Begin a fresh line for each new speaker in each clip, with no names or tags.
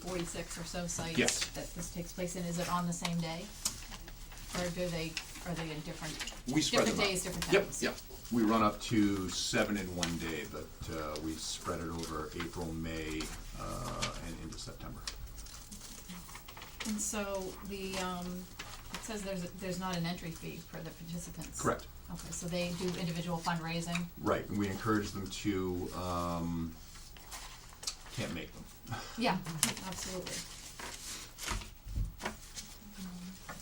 forty-six or so sites
Yes.
that this takes place in, is it on the same day? Or do they, are they in different,
We spread them
different
out.
days, different
Yep,
times?
yep. We run up to seven in one day, but uh, we spread it over April, May, uh, and into September.
And so the, um, it says there's, there's not an entry fee for the participants.
Correct.
Okay, so they do individual fundraising,
Right, and we encourage them to, um, can't make them.
yeah, absolutely.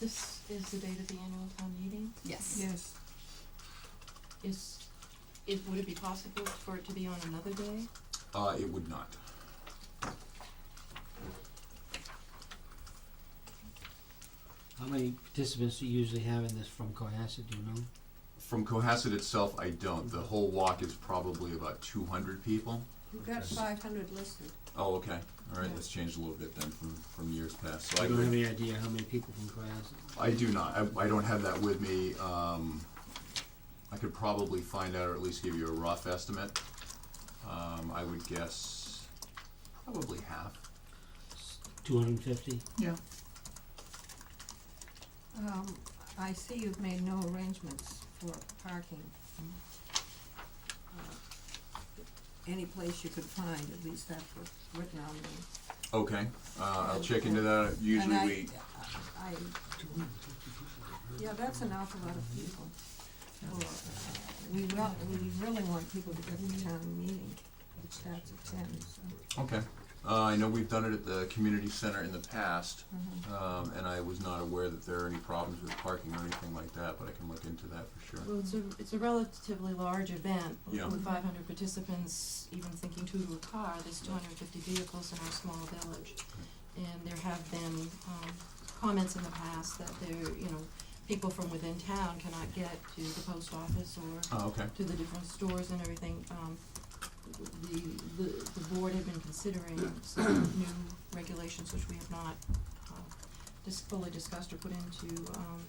This is the date of the annual town meeting.
Yes.
Yes.
Is, it, would it be possible for it to be on another day?
Uh, it would not.
How many participants do you usually have in this from Cohasset, do you know?
From Cohasset itself, I don't. The whole walk is probably about two hundred people.
You've got five hundred listed.
Oh, okay. All right,
Yeah.
that's changed a little bit then from, from years past. So I
You don't have
could,
any idea how many people from Cohasset?
I do not. I, I don't have that with me. Um, I could probably find out or at least give you a rough estimate. Um, I would guess probably half.
Two hundred and fifty?
Yeah.
Um, I see you've made no arrangements for parking. Uh, Any place you could find, at least that's what's written on the.
Okay, uh, I'll check into that.
and
Usually
I-
we,
I, yeah, that's an awful lot of people. Or, uh, We wel- we really want people to get to town meeting, which starts at ten, so.
okay. Uh, I know we've done it at the community center in the past.
Mm-hmm.
Um, and I was not aware that there are any problems with parking or anything like that, but I can look into that for sure.
Well, it's a, it's a relatively large event.
Yeah.
With five hundred participants, even thinking two to a car, there's two hundred and fifty vehicles in our small village. And there have been, um, comments in the past that there, you know, people from within town cannot get to the post office or
Oh, okay,
to the different stores and everything, um, the, the, the board had been considering some new regulations, which we have not, uh, just fully discussed or put into, um,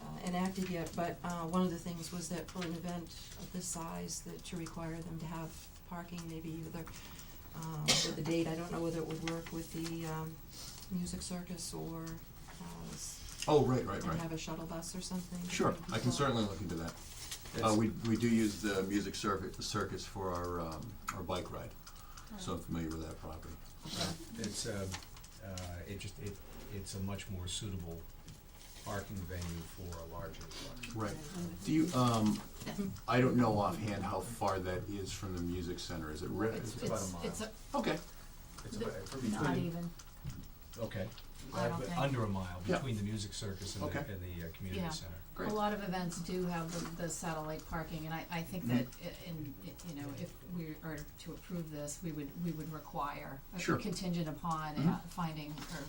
uh, enacted yet, but, uh, one of the things was that for an event of this size, that to require them to have parking, maybe either, um, with the date, I don't know whether it would work with the, um, music circus or, uh, s-
oh, right, right,
and
right.
have a shuttle bus or something.
Sure, I can
Well,
certainly look into that. Uh, we, we do use the music circuit, circus for our, um, our bike ride, so I'm familiar with that property.
It's, um, uh, it just, it, it's a much more suitable parking venue for a larger park.
Right. Do you, um, I don't know offhand how far that is from the music center, is it re-
It's,
is it-
about a
it's,
mile.
it's, a-
Okay,
It's
The-
about, it's
not
between,
even,
okay,
I don't
but
think.
under a mile,
Yeah.
between the music circus and the,
Okay.
and the uh, community
Yeah.
center.
great.
A lot of events do have the, the satellite parking, and I, I think that
Mm-hmm.
i- in, i- you know, if we are to approve this, we would, we would require a
Sure.
contingent upon uh,
Mhm.
finding or,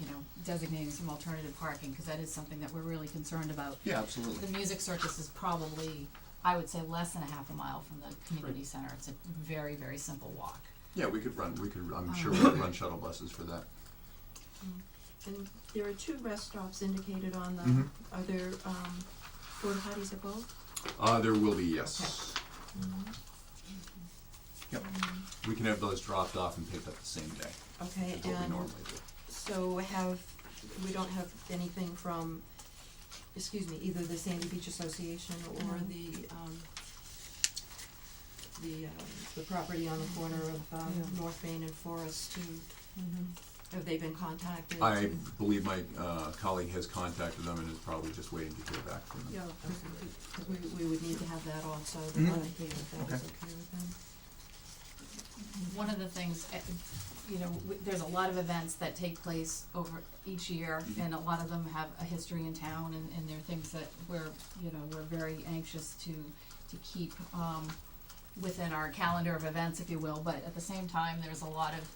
you know, designating some alternative parking, because that is something that we're really concerned about.
Yeah, absolutely.
The music circus is probably, I would say, less than a half a mile from the community center. It's a very, very simple walk.
Yeah, we could run, we could, I'm sure we
Um.
could run shuttle buses for that.
And there are two rest stops indicated on
Mhm.
the, are there, um, porta potties at both?
Uh, there will be, yes.
mm
Yep. We can have those dropped off and picked up the same day,
Okay,
is what we
and
normally do.
Um, so have, we don't have anything from, excuse me, either the Sandy Beach Association or
No.
the, um, the, um, the property on the corner of, um,
Yeah.
North Main and Forest to, have they been contacted?
I believe my uh, colleague has contacted them and is probably just waiting to hear back from them.
Yeah.
Because we, we would need to have that also, the
Mhm.
other thing, if that was
Okay.
okay with them.
One of the things, eh, you know, w- there's a lot of events that take place over each year,
Mhm.
and a lot of them have a history in town, and, and they're things that we're, you know, we're very anxious to, to keep, um, within our calendar of events, if you will, but at the same time, there's a lot of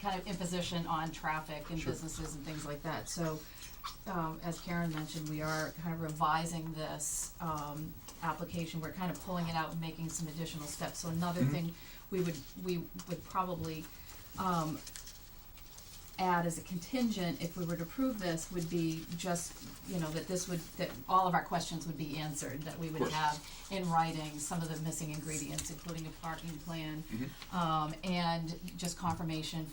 kind of imposition on traffic and
Sure.
businesses and things like that, so, um, as Karen mentioned, we are kind of revising this, um, application, we're kind of pulling it out and making some additional steps, so another
Mhm.
thing we would, we would probably, um, add as a contingent, if we were to approve this, would be just, you know, that this would, that all of our questions would be answered, that we would
course.
have in writing some of the missing ingredients, including a parking plan,
Mhm.
um, and just confirmation